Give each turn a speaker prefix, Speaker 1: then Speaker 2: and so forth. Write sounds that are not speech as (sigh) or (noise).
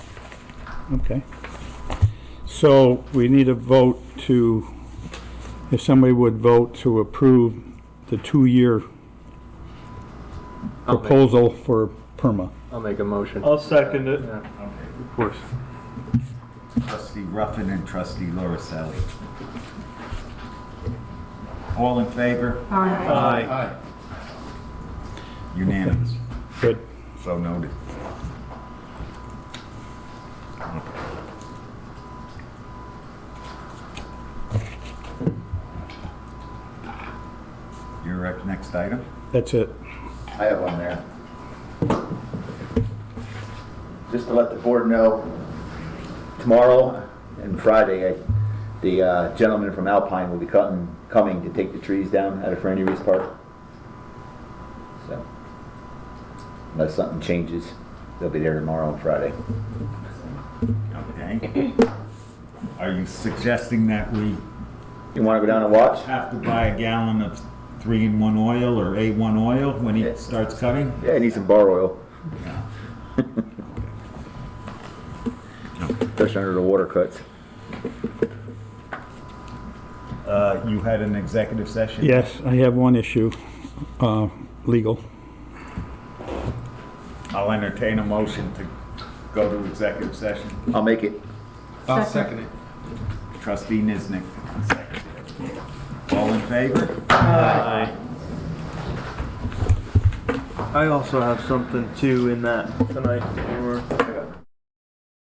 Speaker 1: Okay. So we need a vote to, if somebody would vote to approve the two-year
Speaker 2: I'll make-
Speaker 1: proposal for PERMA.
Speaker 2: I'll make a motion.
Speaker 3: I'll second it.
Speaker 2: Yeah.
Speaker 1: Of course.
Speaker 4: Trustee Ruffin and trustee Loriselli. All in favor? Aye. Unanimous.
Speaker 1: Good.
Speaker 4: So noted. Your uh, next item?
Speaker 1: That's it.
Speaker 5: I have one there. Just to let the board know, tomorrow and Friday, I- the uh, gentleman from Alpine will be cutting, coming to take the trees down out of Franny Reese Park. So, unless something changes, they'll be there tomorrow and Friday.
Speaker 4: Okay. Are you suggesting that we
Speaker 5: You wanna go down and watch?
Speaker 4: have to buy a gallon of three-in-one oil or A1 oil when he starts cutting?
Speaker 5: Yeah, I need some bar oil, (laughs) especially under the water cuts.
Speaker 4: Uh, You had an executive session?
Speaker 1: Yes, I have one issue, uh, legal.
Speaker 4: I'll entertain a motion to go to executive session.
Speaker 5: I'll make it.
Speaker 6: I'll second it.
Speaker 4: Trustee Niznik. All in favor?
Speaker 3: I also have something too in that tonight that we were